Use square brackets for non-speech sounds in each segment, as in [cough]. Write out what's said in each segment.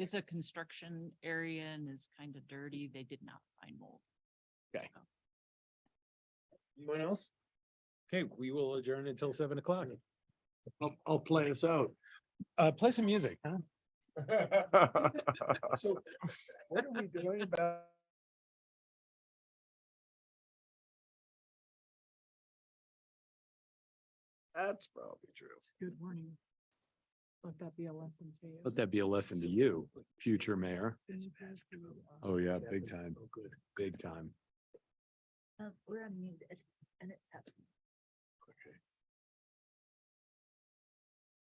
It's a construction area and is kind of dirty. They did not find mold. Anyone else? Okay, we will adjourn until seven o'clock. I'll, I'll play us out. Uh, play some music, [laughs] huh? So what are we doing about? That's probably true. Good warning. Let that be a lesson to you. Let that be a lesson to you, future mayor. It's bad for the law. Oh, yeah, big but- time, Oh, good. big time. Um, we're unmuted and it's happening.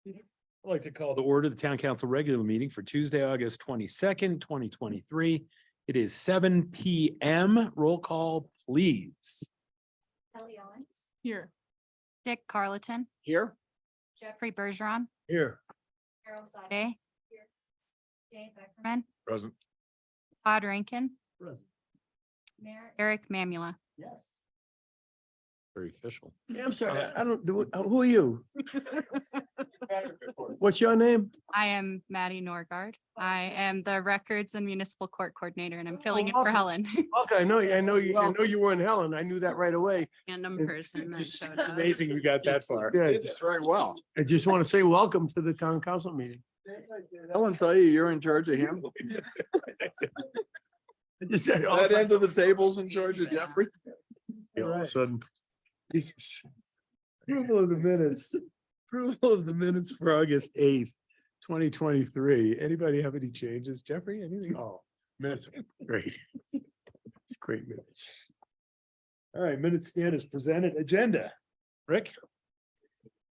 I'd like to call The order of the town council regular meeting for Tuesday, August twenty-second, twenty twenty-three. It is seven P M. Roll call, please. Kelly Owens, Here. Dick Carleton, Here? Jeffrey Bergeron, Here. Carol Sade, Day, Jane Beckerman, Berman, Present. Todd Rankin, Merritt. Eric Mamula. Yes. Very official. Yeah, I'm sorry. I don't, do. uh, who are you? the. What's your name? I am Maddie Norgard. I am the Records and Municipal Court Coordinator and I'm Oh, filling in for awesome. Helen. [laughs] Okay, I know, you. I know you, I know you were in Helen. I knew that right away. Random It- person that It's showed up. amazing you got that far. Yeah, it's very well. I just want to say welcome to the town council meeting. Ellen tell you you're in charge of him? I just said, all That of end of the table's in charge of Jeffrey? a Right. sudden. Jesus. Approval of the minutes. [laughs] Approval of the minutes for August eighth, twenty twenty-three. Anybody have any changes? Jeffrey, anything? Oh, minutes, are great. It's great minutes. All right, minute stand is presented agenda. Rick?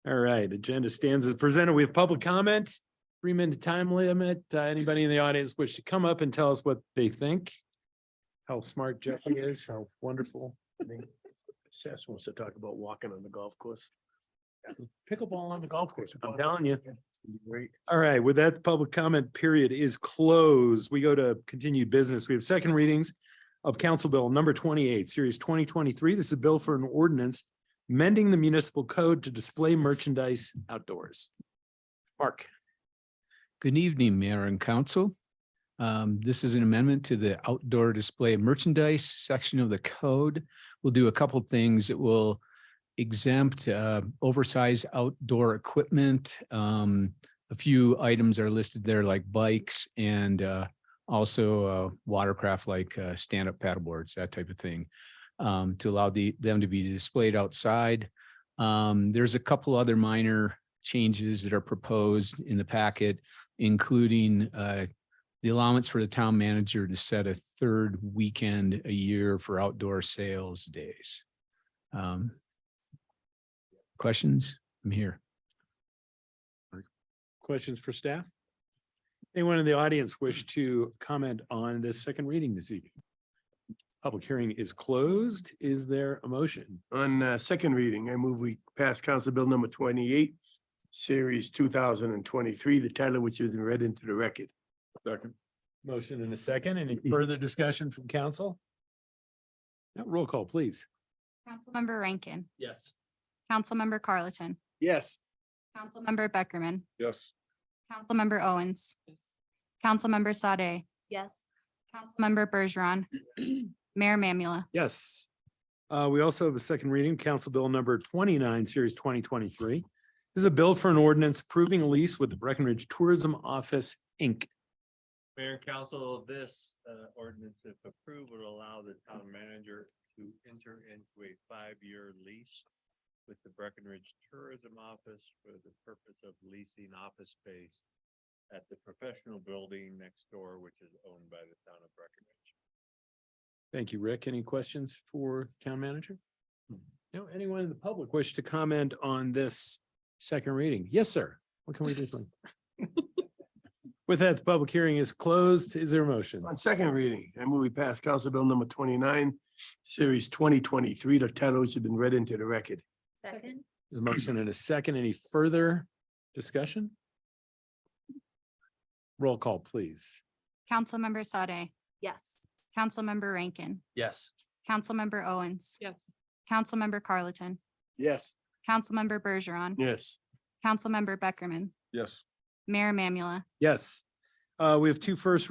All right, agenda stands as presented. We have public comment, three minute time limit. Uh, Anybody in the audience wish to come up and tell us what they think? How smart Jeffrey is, how wonderful. I think Seth wants to talk about walking on the golf course. Pickleball on the golf course. I'm telling you. Great. All right, with that, the public comment period is closed. We go to continued business. We have second readings of Council Bill number twenty-eight, series twenty twenty-three. This is a bill for an ordinance mending the municipal code to display merchandise outdoors. Mark. Good evening, Mayor and Council. Um, This is an amendment to the outdoor display merchandise section of the code. We'll do a couple things. It will exempt uh, oversized outdoor equipment. Um, A few items are listed there like bikes and uh, also uh, watercraft like uh, stand-up paddleboards, that type of thing, um, to allow the, them to be displayed outside. Um, There's a couple other minor changes that are proposed in the packet including uh, the allowance for the town manager to set a third weekend a year for outdoor sales days. Um, Questions? I'm here. Questions for staff? Anyone in the audience wish to comment on this second reading this evening? Public hearing is closed. Is there a motion? On uh, second reading, I move we pass Council Bill number twenty-eight, series two thousand and twenty-three, the title which is read into the record. Second. Motion and a second. Any further discussion from council? Now, roll call, please. Councilmember Member Rankin, Yes. Councilmember Carleton, Yes. Councilmember Beckerman, Yes. Councilmember Owens, Councilmember Sade, Yes. Councilmember Bergeron, [clears throat] Mayor Mamula. Yes. Uh, we also have a second reading, Council Bill number twenty-nine, series twenty twenty-three. This is a bill for an ordinance approving a lease with the Breckenridge Tourism Office, Inc. Mayor and Council, this uh, ordinance, if approved, would allow the town manager to enter into a five-year lease with the Breckenridge Tourism Office for the purpose of leasing office space at the professional building next door, which is owned by the town of Breckenridge. Thank you, Rick. Any questions for the town manager? No, anyone in the public wish to comment on this second reading? Yes, sir. What can we do? for you? With that, the public hearing is closed. Is there a motion? On second reading, I move we pass Council Bill number twenty-nine, series twenty twenty-three, the title which has been read into the record. Second? Is a motion and a second? Any further discussion? Roll call, please. Councilmember Sade, Yes. Councilmember Rankin, Yes. Councilmember Owens, Yes. Councilmember Carleton, Yes. Councilmember Bergeron, Yes. Councilmember Beckerman, Yes. Mayor Mamula. Yes. Uh, Uh, we have two first